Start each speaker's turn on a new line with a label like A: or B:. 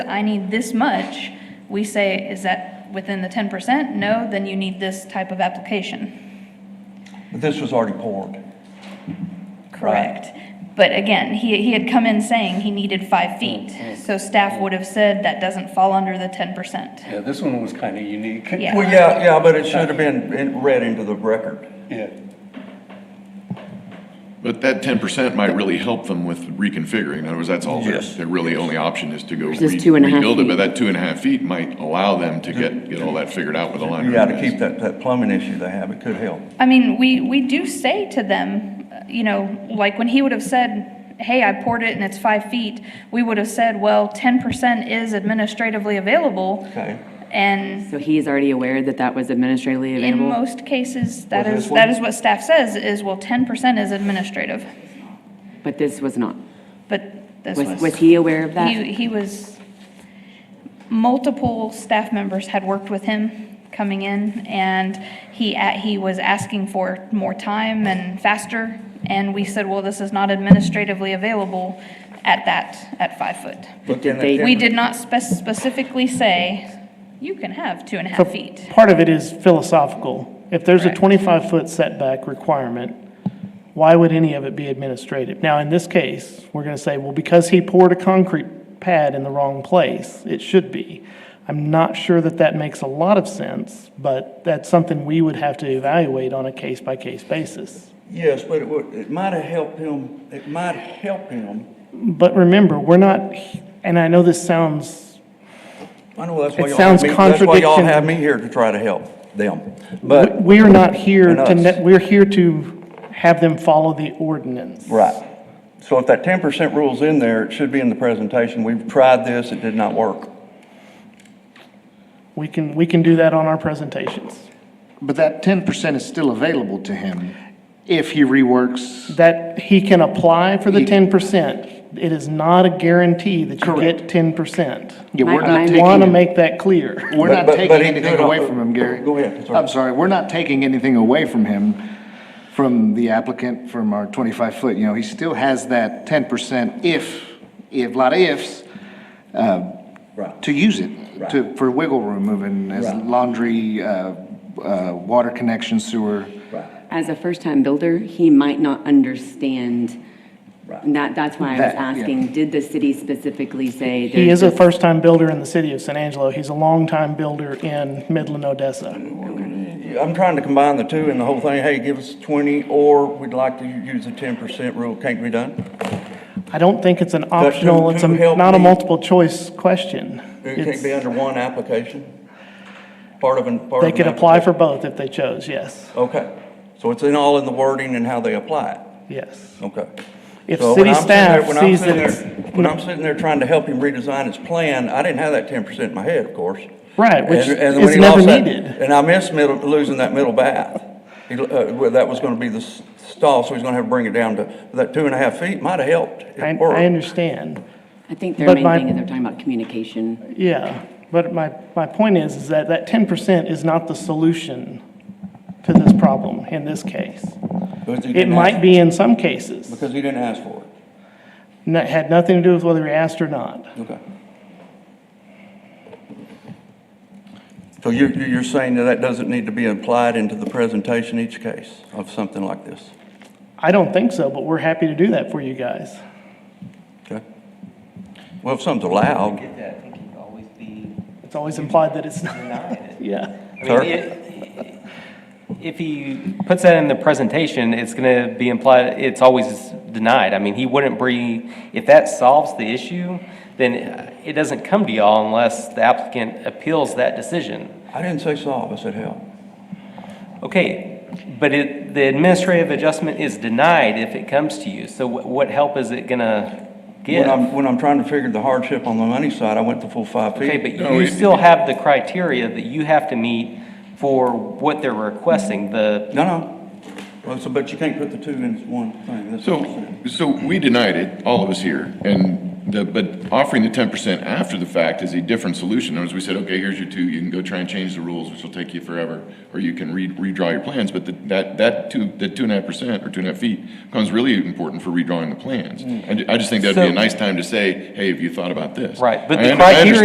A: I need this much, we say, is that within the ten percent? No, then you need this type of application.
B: But this was already poured.
A: Correct. But again, he, he had come in saying he needed five feet, so staff would have said that doesn't fall under the ten percent.
C: Yeah, this one was kind of unique.
A: Yeah.
B: Well, yeah, yeah, but it should have been in- read into the record.
C: Yeah.
D: But that ten percent might really help them with reconfiguring. In other words, that's all, their,
B: Yes.
D: their really only option is to go re-
E: Just two and a half
D: rebuild it. But
E: feet.
D: that two and a half feet might allow them to get, get all that figured out with a line.
B: Yeah, to keep that, that plumbing issue they have, it could help.
A: I mean, we, we do say to them, uh, you know, like when he would have said, hey, I poured it and it's five feet, we would have said, well, ten percent is administratively available.
B: Okay.
A: And
E: So he's already aware that that was administratively
A: in
E: available?
A: most cases, that is,
B: Was this
A: that
B: one?
A: is what staff says, is, well, ten percent is administrative.
E: But this was not.
A: But this
E: Was,
A: was.
E: was he aware of that?
A: He, he was, multiple staff members had worked with him coming in, and he, a- he was asking for more time and faster, and we said, well, this is not administratively available at that, at five foot.
B: But then
E: they-
B: it
A: We
B: didn't-
A: did not spec- specifically say, you can have two and a
F: So
A: half feet.
F: Part of it is philosophical. If there's a
A: Correct.
F: 25-foot setback requirement, why would any of it be administrative? Now, in this case, we're going to say, well, because he poured a concrete pad in the wrong place, it should be. I'm not sure that that makes a lot of sense, but that's something we would have to evaluate on a case-by-case basis.
B: Yes, but it would, it might have helped him, it might help him.
F: But remember, we're not, and I know this sounds,
B: I know that's why
F: It
B: y'all have
F: sounds
B: me, that's why y'all
F: contradiction.
B: have me here to try to help them. But,
F: we are not here
B: And
F: to,
B: us.
F: ne- we're here to have them follow the ordinance.
B: right. So if that ten percent rule's in there, it should be in the presentation. We've tried this, it did not work.
F: We can, we can do that on our presentations.
G: But that ten percent is still available to him if he reworks.
F: That he can apply for the
G: He-
F: ten percent. It is not a guarantee that you get ten percent.
G: Yeah, we're
E: My-
G: not
E: my-
G: taking,
F: Want to make that clear.
G: we're
B: But-
G: not
B: but-
G: taking
B: but he
G: anything
B: could
G: away
B: also-
G: from him, Gary.
B: Go ahead, sorry.
G: I'm sorry, we're not taking anything away from him, from the applicant, from our twenty-five foot, you know, he still has that ten percent if, if, lot of ifs, uh,
B: Right.
G: to use it, to, for wiggle room moving as
B: Right.
G: laundry, uh, uh, water connection, sewer.
E: As a first-time builder, he might not understand.
B: Right.
E: That, that's why I was
G: That, yeah.
E: asking, did the city specifically say?
F: He
E: there's
F: is a
E: this-
F: first-time builder in the city of San Angelo. He's a longtime builder in Midland, Odessa.
B: I'm trying to combine the two and the whole thing, hey, give us twenty or we'd like to use the ten percent rule. Can't be done?
F: I don't think it's an optional, it's a,
B: who helped
F: not a
B: me?
F: multiple-choice question.
B: It can't be
F: It's-
B: under one application? Part of an, part of
F: They
B: an
F: could apply for
B: application?
F: both if they chose, yes,
B: Okay, so it's in all in the wording and how they apply it,
F: yes.
B: okay.
F: If
B: So when
F: city
B: I'm sitting there-
F: staff
B: when I'm
F: sees
B: sitting
F: that
B: there-
F: it's-
B: When I'm sitting there trying to help him redesign his plan, I didn't have that ten percent in my head, of course.
F: Right, which
B: And- and when
F: is
B: he
F: never
B: lost that-
F: needed.
B: And I missed middle, losing that middle bath. He, uh, well, that was gonna be the s- stall, so he's gonna have to bring it down to, that two and a half feet might have helped. It
F: I,
B: worked.
F: I understand.
E: I think their
F: But
E: main
F: my-
E: thing is they're talking about communication.
F: Yeah, but my, my point is, is that that ten percent is not the solution to this problem in this case.
B: Because he
F: It
B: didn't
F: might
B: ask-
F: be in some cases.
B: Because he didn't ask for it,
F: No- Had nothing to do with whether we asked or not.
B: okay. So you're, you're saying that that doesn't need to be applied into the presentation each case of something like this,
F: I don't think so, but we're happy to do that for you guys.
B: okay? Well, if something's allowed,
H: get that, I think he'd always be
F: It's always implied that it's not,
H: denying it.
F: yeah.
H: I mean,
B: Sir?
H: it- If he puts that in the presentation, it's going to be implied, it's always denied. I mean, he wouldn't be, if that solves the issue, then it doesn't come to y'all unless the applicant appeals that decision.
B: I didn't say solve, I said help.
H: Okay, but it, the administrative adjustment is denied if it comes to you, so what, what help is it gonna
B: When
H: give?
B: I'm, when I'm trying to figure the hardship on the money side, I went the full five
H: Okay,
B: feet.
H: but you still have the criteria that you have to meet for what they're requesting, the,
B: No, no. Well, so, but you can't put the two in one thing. That's what I'm saying.
D: So, so we denied it, all of us here, and the, but offering the ten percent after the fact is a different solution. In other words, we said, okay, here's your two, you can go try and change the rules, which will take you forever, or you can re- redraw your plans, but the- that, that two, that two and a half percent or two and a half feet becomes really important for redrawing the plans. I, ju- I just think that'd be
H: Mm. So-
D: a nice time to say, hey, have you thought about this?
H: Right, but
D: I
H: the
D: under- I
H: criteria